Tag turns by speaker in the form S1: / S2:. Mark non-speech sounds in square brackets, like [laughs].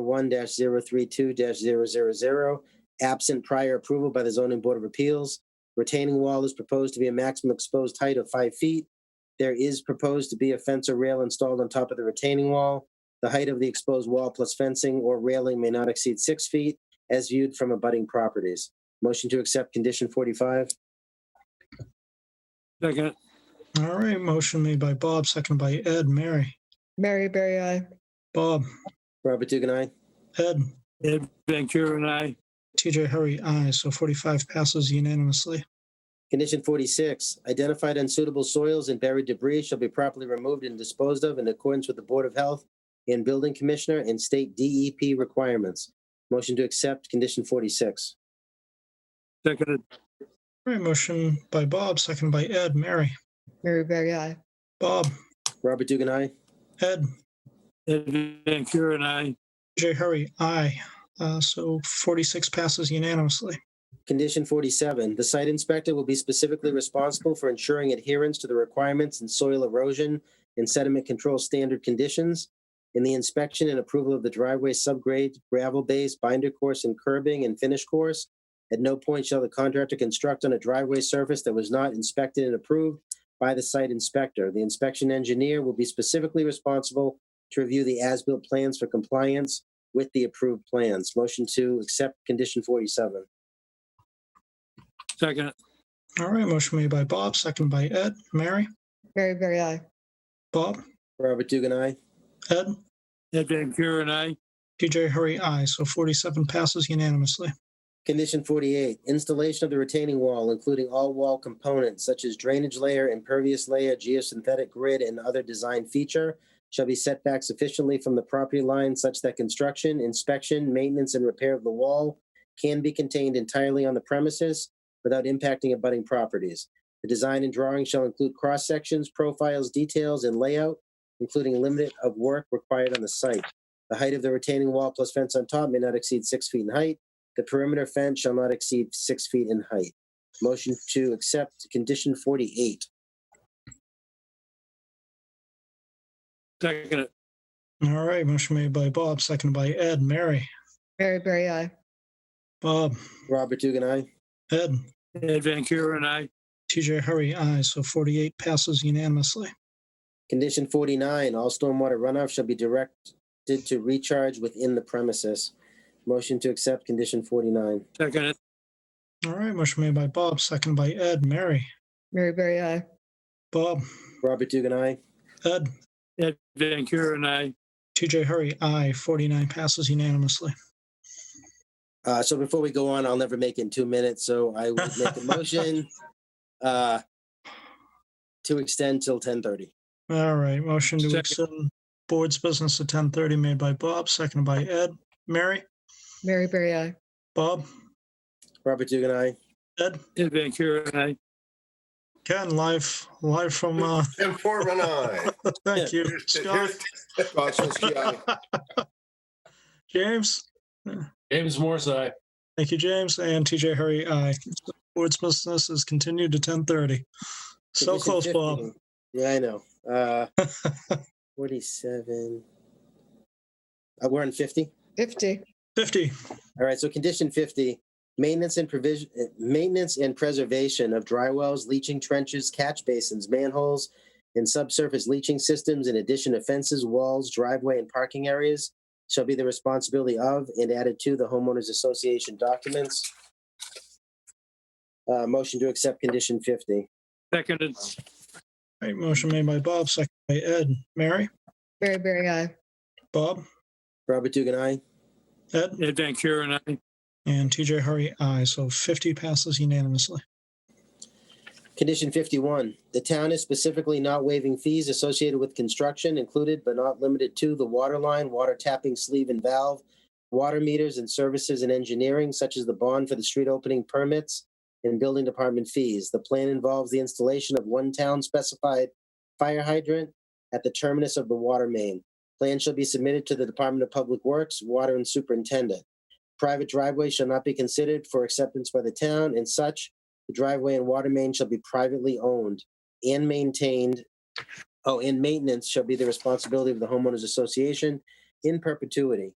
S1: one 32 zero three two 0 absent prior approval by the zoning board of appeals. Retaining wall is proposed to be a maximum exposed height of five feet. There is proposed to be a fence or rail installed on top of the retaining wall. The height of the exposed wall plus fencing or railing may not exceed six feet as viewed from abutting properties. Motion to accept condition forty-five?
S2: Second,
S3: All right, motion made by Bob, seconded by Ed, Mary,
S4: Mary Berry I.
S3: Bob,
S1: Robert Dugan, aye.
S3: Ed,
S2: Ed Ventura and I.
S3: TJ Hurry, aye. So 45 passes unanimously.
S1: Condition forty-six, identified unsuitable soils and buried debris shall be properly removed and disposed of in accordance with the Board of Health and Building Commissioner and state DEP requirements. Motion to accept condition forty-six.
S2: Seconded,
S3: All right, motion by Bob, seconded by Ed, Mary,
S4: Mary Berry I.
S3: Bob,
S1: Robert Dugan, aye.
S3: Ed,
S2: Ed Ventura and I.
S3: TJ Hurry, aye. Uh, So 46 passes unanimously.
S1: Condition forty-seven, the site inspector will be specifically responsible for ensuring adherence to the requirements in soil erosion and sediment control standard conditions in the inspection and approval of the driveway subgrade, gravel base, binder course, and curbing and finish course. At no point shall the contractor construct on a driveway surface that was not inspected and approved by the site inspector. The inspection engineer will be specifically responsible to review the as-built plans for compliance with the approved plans. Motion to accept condition forty-seven.
S2: Second,
S3: All right, motion made by Bob, seconded by Ed, Mary,
S4: Mary Berry I.
S3: Bob,
S1: Robert Dugan, aye.
S3: Ed,
S2: Ed Ventura and I.
S3: TJ Hurry, aye. So 47 passes unanimously.
S1: Condition forty-eight, installation of the retaining wall, including all wall components such as drainage layer, impervious layer, geosynthetic grid, and other design feature shall be set back sufficiently from the property line such that construction, inspection, maintenance, and repair of the wall can be contained entirely on the premises without impacting abutting properties. The design and drawing shall include cross-sections, profiles, details, and layout, including limit of work required on the site. The height of the retaining wall plus fence on top may not exceed six feet in height. The perimeter fence shall not exceed six feet in height. Motion to accept condition forty-eight.
S2: Seconded,
S3: All right, motion made by Bob, seconded by Ed, Mary,
S4: Mary Berry I.
S3: Bob,
S1: Robert Dugan, aye.
S3: Ed,
S2: Ed Ventura and I.
S3: TJ Hurry, aye. So 48 passes unanimously.
S1: Condition forty-nine, all stormwater runoff shall be directed to recharge within the premises. Motion to accept condition forty-nine.
S2: Seconded,
S3: All right, motion made by Bob, seconded by Ed, Mary,
S4: Mary Berry I.
S3: Bob,
S1: Robert Dugan, aye.
S3: Ed,
S2: Ed Ventura and I.
S3: TJ Hurry, aye. 49 passes unanimously.
S1: Uh, so before we go on, I'll never make it in two minutes, so I would make [laughs] a motion uh, to extend till ten thirty.
S3: All right, motion to
S2: Second.
S3: extend board's business at 10:30 made by Bob, seconded by Ed, Mary,
S4: Mary Berry I.
S3: Bob,
S1: Robert Dugan, aye.
S3: Ed,
S2: Ed Ventura and I.
S3: Ken, live, live from, uh,
S5: Tim Portman, aye.
S3: thank you, Scott,
S5: Scott Zelinski, aye.
S3: [laughs] James.
S6: James Morse, aye.
S3: Thank you, James, and TJ Hurry, aye. Board's business is continued to 10:30. So
S1: Condition
S3: close, Bob.
S1: 15. Yeah, I know. Uh,
S3: [laughs]
S1: 47. Uh, we're in 50.
S4: 50.
S3: 50.
S1: All right. So condition 50, maintenance and provision, uh, maintenance and preservation of dry wells, leaching trenches, catch basins, manholes, and subsurface leaching systems, in addition to fences, walls, driveway, and parking areas shall be the responsibility of and added to the homeowners association documents. Uh, motion to accept condition 50.
S2: Seconded,
S3: All right, motion made by Bob, seconded by Ed, Mary,
S4: Mary Berry I.
S3: Bob,
S1: Robert Dugan, aye.
S3: Ed,
S2: Ed Ventura and I.
S3: and TJ Hurry, aye. So 50 passes unanimously.
S1: Condition fifty-one, the town is specifically not waiving fees associated with construction included but not limited to the water line, water tapping sleeve and valve, water meters and services and engineering such as the bond for the street opening permits and building department fees. The plan involves the installation of one town specified fire hydrant at the terminus of the water main. Plan shall be submitted to the Department of Public Works, Water and Superintendent. Private driveways shall not be considered for acceptance by the town and such the driveway and water main shall be privately owned and maintained. Oh, and maintenance shall be the responsibility of the homeowners association in perpetuity.